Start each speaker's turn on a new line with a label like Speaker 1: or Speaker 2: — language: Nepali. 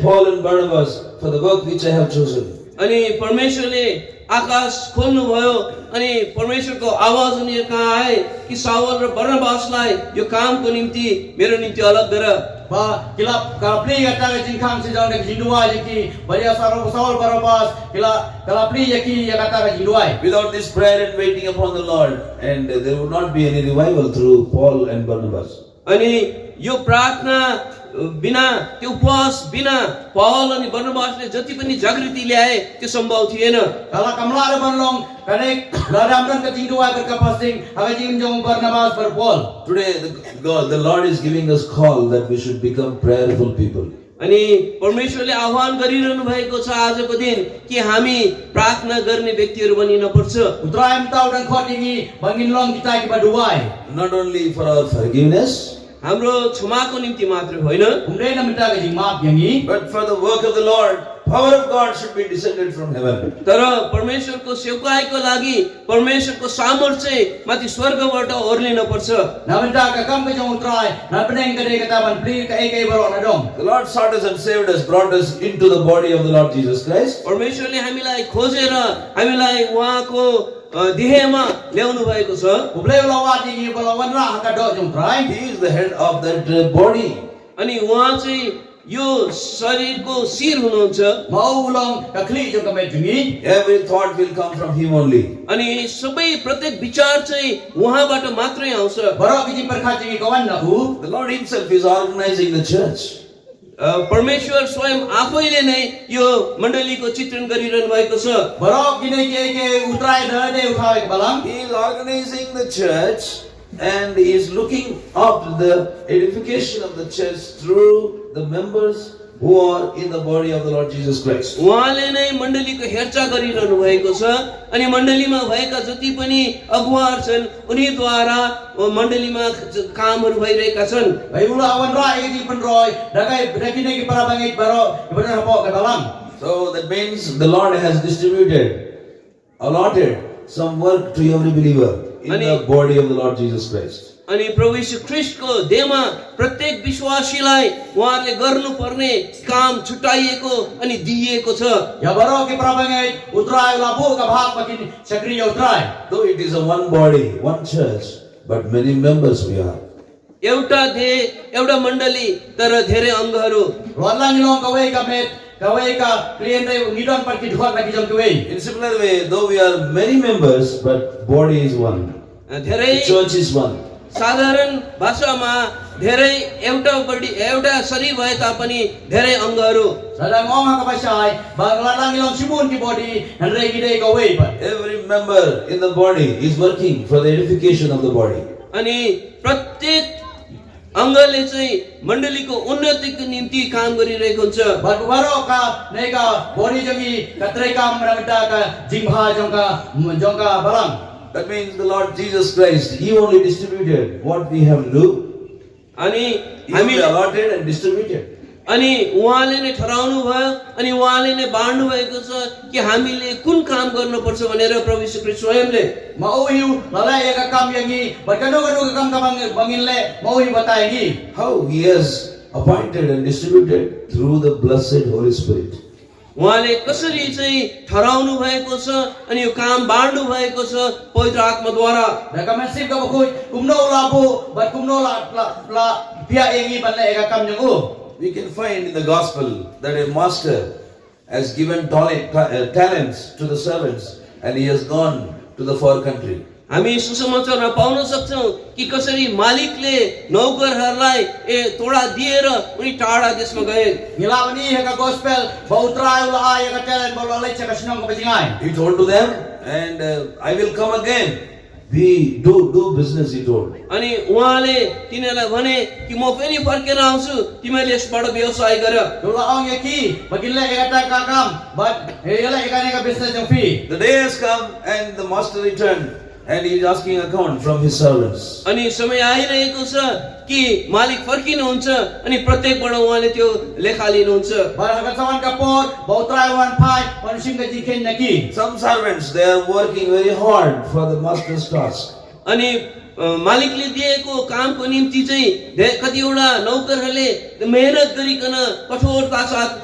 Speaker 1: Paul and Barnabas for the work which I have chosen.
Speaker 2: अनि परमेश्वरले आकाश खोल्नुभयो अनि परमेश्वरको आवाज उनीहरू कहाँ आए कि सावल र बर्णवासलाई यो कामको निम्ति मेरो निम्ति अलग गर
Speaker 3: Ba, kila kala pli ya kala jin kam si jang nek jindua yaki baria saro saul barabas kila kala pli yaki ya kata ka jindua
Speaker 1: Without this prayer and waiting upon the Lord, and there would not be any revival through Paul and Barnabas.
Speaker 2: अनि यो प्रार्थना बिना त्यो उपवास बिना पहल अनि बर्णवासले जति पनि जागृति ल्याए त्यो सम्भव थिएन
Speaker 3: kala kamla ada banlong kane ladam dan ka jindua ber ka pasting aga jin jong barnabas berpol
Speaker 1: Today, the, God, the Lord is giving us call that we should become prayerful people.
Speaker 2: अनि परमेश्वरले आह्वान गरिरहनु भएको छ आजको दिन कि हामी प्रार्थना गर्ने व्यक्तिहरू बनिनपर्छ
Speaker 3: utra em tau dan khot yaki bangin long kita ki baduai
Speaker 1: Not only for our forgiveness,
Speaker 2: हाम्रो क्षमाको निम्ति मात्र होइन
Speaker 3: kumre na mita ka jing maaf yangi
Speaker 1: but for the work of the Lord. Power of God should be descended from heaven.
Speaker 2: तर परमेश्वरको सेवकाईको लागि परमेश्वरको सामर्थ्य चाहिँ माथि स्वर्गबाट ओर्लिन पर्छ
Speaker 3: na mita ka kam ka jong utra na peneng ka de kata ban pli ka ei ka ei barok na dong
Speaker 1: The Lord sought us and saved us, brought us into the body of the Lord Jesus Christ.
Speaker 2: परमेश्वरले हामीलाई खोजेर हामीलाई उहाँको अ, देहमा ल्याउनु भएको छ
Speaker 3: kumre lawat yaki balawan ra ha ka do jong utra
Speaker 1: He is the head of that uh, body.
Speaker 2: अनि उहाँ चाहिँ यो शरीरको शिर हुनुहुन्छ
Speaker 3: mau long ka kli jong ka met yangi
Speaker 1: Every thought will come from Him only.
Speaker 2: अनि सबै प्रत्येक विचार चाहिँ उहाँबाट मात्रै आउँछ
Speaker 3: Barak kiji perkhati kawan nak hu.
Speaker 1: The Lord Himself is organizing the church.
Speaker 2: अ, परमेश्वर स्वयं आफैले नै यो मण्डलीको चित्रण गरिरहनु भएको छ
Speaker 3: Barak kini ke ke utrai dah de ukhai ke balang.
Speaker 1: He is organizing the church and He is looking up the edification of the church through the members who are in the body of the Lord Jesus Christ.
Speaker 2: उहाँले नै मण्डलीको हेरचाह गरिरहनु भएको छ अनि मण्डलीमा भएका जति पनि अगुवाहरू छन् उनीद्वारा मण्डलीमा ज- कामहरू भइरहेका छन्
Speaker 3: Bayi ula awan rai kiji penroi. Dagai dagai kini para bangit barak kepada apa ke balang.
Speaker 1: So that means the Lord has distributed, allotted some work to every believer in the body of the Lord Jesus Christ.
Speaker 2: अनि प्रभु यीशु ख्रिस्टको देहमा प्रत्येक विश्वासीलाई उहाँहरूले गर्नुपर्ने काम छुट्याइएको अनि दिइएको छ
Speaker 3: Ya barak ke para bangit utrai labu ke bahak makin sakriya utrai.
Speaker 1: Though it is a one body, one church, but many members we are.
Speaker 2: एउटा देह एउटा मण्डली तर धेरै अङ्गहरू
Speaker 3: Lualang long kawai ke met kawai ke klien dai ngidon pergi dhuat lagi jom kawai.
Speaker 1: In similar way, though we are many members, but body is one.
Speaker 2: धेरै
Speaker 1: The church is one.
Speaker 2: साधारण भाषामा धेरै एउटा बडी एउटा शरीर भए तापनि धेरै अङ्गहरू
Speaker 3: Sadang ong ha kapasai bang lalang long sibun ki body nan rei kidai kawai pat.
Speaker 1: Every member in the body is working for the edification of the body.
Speaker 2: अनि प्रत्येक अङ्गले चाहिँ मण्डलीको उन्नतिको निम्ति काम गरिरहेको हुन्छ
Speaker 3: Batu baro ka nega bori jongi katreka meramita ka jingha jongka jongka balang.
Speaker 1: That means the Lord Jesus Christ, He only distributed what we have do.
Speaker 2: अनि
Speaker 1: He
Speaker 2: हामी
Speaker 1: only allotted and distributed.
Speaker 2: अनि उहाँले नै ठहराउनु भयो अनि उहाँले नै बाँड्नु भएको छ कि हामीले कुन काम गर्नुपर्छ भनेर प्रभु यीशु ख्रीष्ट स्वयंले
Speaker 3: Mau hiu lalai ya ka kam yangi berkanu kanu ka kam ka bang- bangin le mau hiu batai yangi.
Speaker 1: How He has appointed and distributed through the blessed Holy Spirit.
Speaker 2: उहाँले कसरी चाहिँ ठहराउनु भएको छ अनि यो काम बाँड्नु भएको छ पवित्र आत्माद्वारा
Speaker 3: Dah kam nasib ka bakui kumno labu bat kumno la la la pia yangi ban le ya ka kam jongu.
Speaker 1: We can find in the gospel that a master has given tale- ta- uh, talents to the servants and he has gone to the far country.
Speaker 2: हामी सुसमाचारमा पाउन सक्छौँ कि कसरी मालिकले नौकरहरूलाई ए तोडा दिएर उनी टाढा देशमा गए
Speaker 3: Ngilawani ya ka gospel bautra ula ya ka talent bau lalai cakap senang ka bajingai.
Speaker 1: He told to them, and uh, I will come again. We do do business, he told.
Speaker 2: अनि उहाँले तिनीहरूलाई भने कि म फेरि फर्केर आउँछु तिमीहरूले यसबाट व्यवसाय गर
Speaker 3: Dula ong yaki bagin le ya ka ka kam bat ya le ka ne ka business jong fee.
Speaker 1: The day has come, and the master returned, and he is asking account from his servants.
Speaker 2: अनि समय आइरहेको छ कि मालिक फर्किनुहुन्छ अनि प्रत्येकबाट उहाँले त्यो लेखा लिनुहुन्छ
Speaker 3: Barangkawan kapor, bautrai wan pai, panusim ka jikin naki.
Speaker 1: Some servants they are working very hard for the master's task.
Speaker 2: अनि अ, मालिकले दिएको कामको निम्ति चाहिँ धे- कतिवटा नौकरहरूले मेहनत गरिकन कठोरता साथ